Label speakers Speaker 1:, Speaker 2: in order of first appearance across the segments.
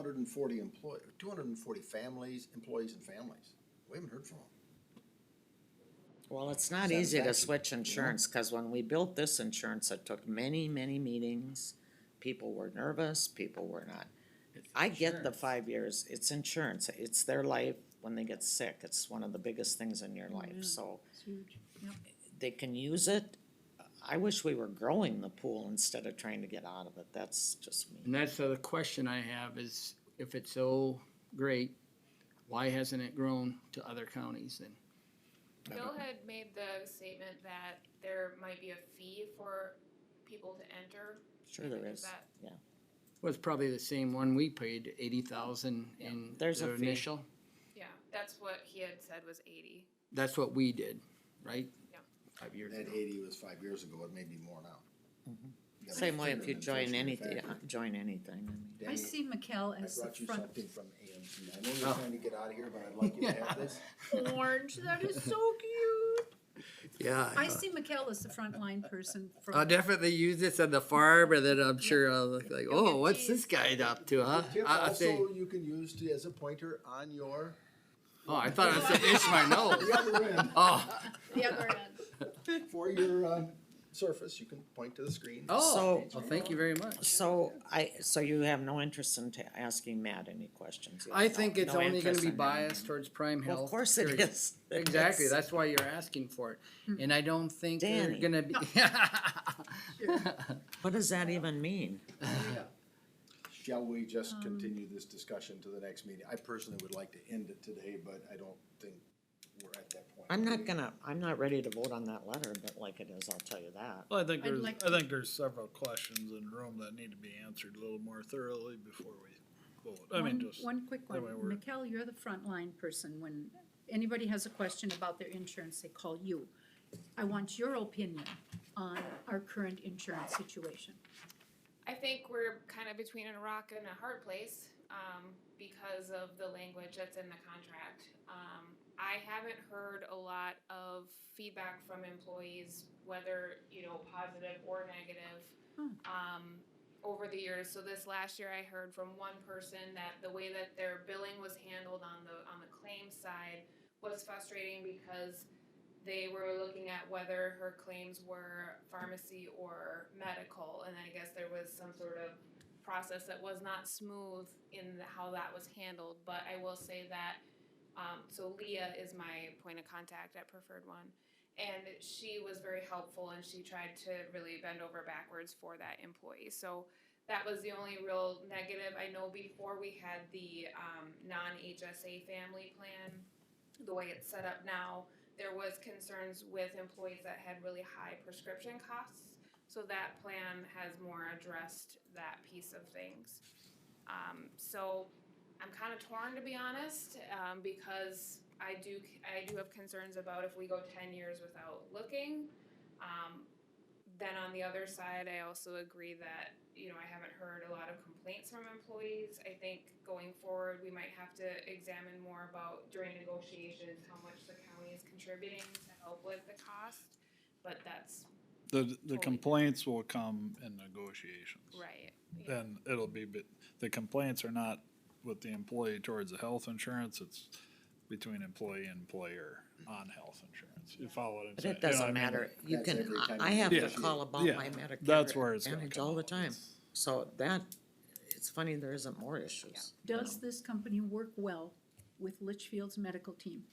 Speaker 1: hundred and forty employ, two hundred and forty families, employees and families. We haven't heard from them.
Speaker 2: Well, it's not easy to
Speaker 1: Satisfaction,
Speaker 2: switch insurance, cause when we built this insurance, it took many, many meetings. People were nervous, people were not. I get the five years, it's insurance, it's their life when they get sick, it's one of the biggest things in your life, so. They can use it. I wish we were growing the pool instead of trying to get out of it, that's just me.
Speaker 3: And that's the other question I have is if it's so great, why hasn't it grown to other counties and
Speaker 4: Bill had made the statement that there might be a fee for people to enter.
Speaker 2: Sure there
Speaker 4: Is
Speaker 2: is,
Speaker 4: that-
Speaker 2: yeah.
Speaker 3: was probably the same one we paid eighty thousand in
Speaker 2: There's a
Speaker 3: the
Speaker 2: fee.
Speaker 3: initial?
Speaker 4: Yeah, that's what he had said was eighty.
Speaker 3: That's what we did, right?
Speaker 4: Yeah.
Speaker 3: Five years
Speaker 1: That
Speaker 3: ago.
Speaker 1: eighty was five years ago, it may be more now. That
Speaker 2: Same
Speaker 1: was
Speaker 2: way if
Speaker 1: an
Speaker 2: you join
Speaker 1: inflationary
Speaker 2: anything,
Speaker 1: factor.
Speaker 2: join anything, I mean.
Speaker 1: Danny,
Speaker 5: I see Mikel
Speaker 1: I
Speaker 5: as the
Speaker 1: brought you
Speaker 5: front.
Speaker 1: something from AMC. I know
Speaker 2: Oh.
Speaker 1: you're trying to get out of here, but I'd like you to have this.
Speaker 5: Orange, that is so cute.
Speaker 6: Yeah.
Speaker 5: I see Mikel as the frontline person from.
Speaker 3: Uh,
Speaker 6: I'll definitely use this at the farm, and then I'm sure I'll look like,
Speaker 5: You'll
Speaker 6: oh,
Speaker 5: get
Speaker 6: what's this
Speaker 5: these."
Speaker 6: guy up to,
Speaker 2: Uh,
Speaker 6: huh?
Speaker 1: Tip
Speaker 6: I, I say,
Speaker 1: also you can use to, as a pointer on your,
Speaker 3: Oh, I thought I said itch my nose.
Speaker 1: the other end,
Speaker 3: Oh,
Speaker 5: The other end.
Speaker 1: for your, um, surface, you can point to the screen.
Speaker 3: oh,
Speaker 2: So-
Speaker 3: well, thank you very much.
Speaker 2: So I, so you have no interest in ta- asking Matt any questions? You
Speaker 3: I
Speaker 2: have no-
Speaker 3: think it's
Speaker 2: no
Speaker 3: only gonna
Speaker 2: interest
Speaker 3: be
Speaker 2: in knowing
Speaker 3: biased
Speaker 2: him?
Speaker 3: towards prime
Speaker 2: Well,
Speaker 3: health.
Speaker 2: Of course it
Speaker 3: period.
Speaker 2: is.
Speaker 3: Exactly,
Speaker 2: It's-
Speaker 3: that's why you're asking for it, and I don't think they're
Speaker 2: Danny.
Speaker 3: gonna be.
Speaker 2: What does that even mean?
Speaker 1: Shall we
Speaker 5: Um.
Speaker 1: just continue this discussion to the next meeting? I personally would like to end it today, but I don't think we're at that point.
Speaker 2: I'm not gonna, I'm not ready to vote on that letter, but like it is, I'll tell you that.
Speaker 7: Well, I think
Speaker 5: I'd
Speaker 7: there's,
Speaker 5: like
Speaker 7: I think there's several questions in the room that need to be answered a little more thoroughly before we vote. I mean,
Speaker 5: One-
Speaker 7: just,
Speaker 5: One quick
Speaker 7: that way
Speaker 5: one.
Speaker 7: we're-
Speaker 5: Mikel, you're the frontline person. When anybody has a question about their insurance, they call you. I want your opinion on our current insurance situation.
Speaker 4: I think we're kind of between a rock and a hard place um, because of the language that's in the contract. Um, I haven't heard a lot of feedback from employees, whether you know positive or negative,
Speaker 5: Hmm.
Speaker 4: um, over the years. So this last year, I heard from one person that the way that their billing was handled on the on the claim side was frustrating because they were looking at whether her claims were pharmacy or medical, and I guess there was some sort of process that was not smooth in the- how that was handled. But I will say that, um, so Leah is my point of contact at Preferred One, and she was very helpful, and she tried to really bend over backwards for that employee. So that was the only real negative. I know before we had the um, non-HSA family plan, the way it's set up now, there was concerns with employees that had really high prescription costs. So that plan has more addressed that piece of things. Um, so I'm kind of torn to be honest, um, because I do, I do have concerns about if we go ten years without looking. Um, then on the other side, I also agree that, you know, I haven't heard a lot of complaints from employees. I think going forward, we might have to examine more about during negotiations, how much the county is contributing to help with the cost. But that's
Speaker 7: the, the
Speaker 4: Totally.
Speaker 7: complaints will come in negotiations.
Speaker 4: right.
Speaker 7: And it'll be, but the complaints are not with the employee towards the health insurance, it's between employee and employer on health insurance. You follow what I'm
Speaker 2: But
Speaker 7: saying?
Speaker 2: it
Speaker 7: You know what I
Speaker 2: doesn't
Speaker 7: mean?
Speaker 2: matter, you
Speaker 1: That's
Speaker 2: can,
Speaker 1: every
Speaker 2: I-
Speaker 1: time
Speaker 2: I
Speaker 1: you
Speaker 2: have to
Speaker 1: negotiate.
Speaker 2: call about
Speaker 7: Yeah,
Speaker 2: my Medicare.
Speaker 7: that's where it's gonna
Speaker 2: Advantage
Speaker 7: come
Speaker 2: all the
Speaker 7: out.
Speaker 2: time,
Speaker 7: It's-
Speaker 2: so that, it's funny, there isn't more issues. you
Speaker 5: Does
Speaker 2: know.
Speaker 5: this company work well with Litchfield's medical team?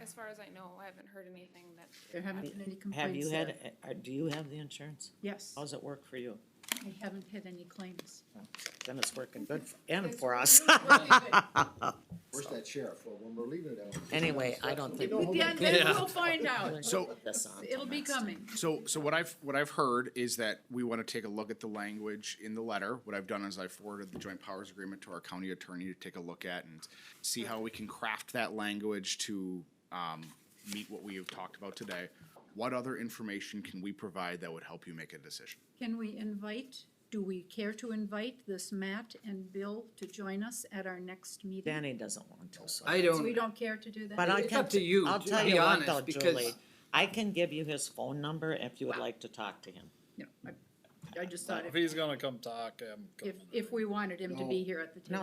Speaker 4: As far as I know, I haven't heard anything that.
Speaker 5: There haven't been any complaints there.
Speaker 2: Have you had, uh, do you have the insurance?
Speaker 5: Yes,
Speaker 2: How's it work for you?
Speaker 5: I haven't had any claims.
Speaker 2: Then it's working good, f- and for us.
Speaker 4: It's really good.
Speaker 1: Where's that sheriff? Well, when we're leaving it. I don't-
Speaker 2: Anyway, I don't think.
Speaker 1: We
Speaker 2: we-
Speaker 5: Yeah, then we'll find
Speaker 2: We're
Speaker 5: out.
Speaker 2: gonna
Speaker 8: So-
Speaker 2: put this on till
Speaker 5: It'll be
Speaker 2: next time.
Speaker 5: coming.
Speaker 8: So, so what I've, what I've heard is that we want to take a look at the language in the letter. What I've done is I forwarded the joint powers agreement to our county attorney to take a look at and see how we can craft that language to, um, meet what we have talked about today. What other information can we provide that would help you make a decision?
Speaker 5: Can we invite, do we care to invite this Matt and Bill to join us at our next meeting?
Speaker 2: Danny doesn't want to, so.
Speaker 3: I
Speaker 5: We
Speaker 3: don't,
Speaker 5: don't care to do that?
Speaker 2: But I
Speaker 3: It's
Speaker 2: can,
Speaker 3: up to you,
Speaker 2: I'll
Speaker 3: to
Speaker 2: tell
Speaker 3: be
Speaker 2: you what
Speaker 3: honest,
Speaker 2: though,
Speaker 3: because-
Speaker 2: Julie, I can give you his phone number if you would like to talk to him.
Speaker 5: No, I- I just thought
Speaker 7: If
Speaker 5: if,
Speaker 7: he's gonna come talk, I'm coming.
Speaker 5: if, if we wanted him to be here at the table.